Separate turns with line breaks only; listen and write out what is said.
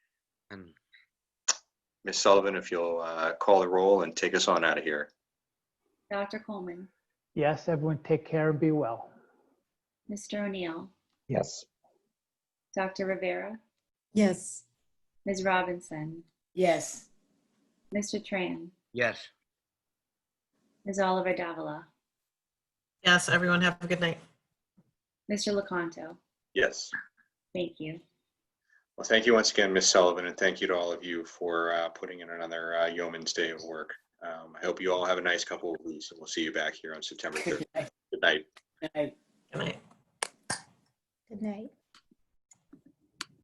Ms. Sullivan, if you'll uh, call the roll and take us on out of here.
Dr. Coleman,
Yes, everyone take care and be well.
Mr. O'Neill,
Yes.
Dr. Rivera,
Yes.
Ms. Robinson,
Yes.
Mr. Tran,
Yes.
Ms. Oliver Davila,
Yes, everyone have a good night.
Mr. Lecanto.
Yes.
Thank you.
Well, thank you once again, Ms. Sullivan, and thank you to all of you for uh, putting in another uh, yeoman's day of work. Um, I hope you all have a nice couple of weeks, and we'll see you back here on September 3rd. Good night.
Right.
Good night.
Good night.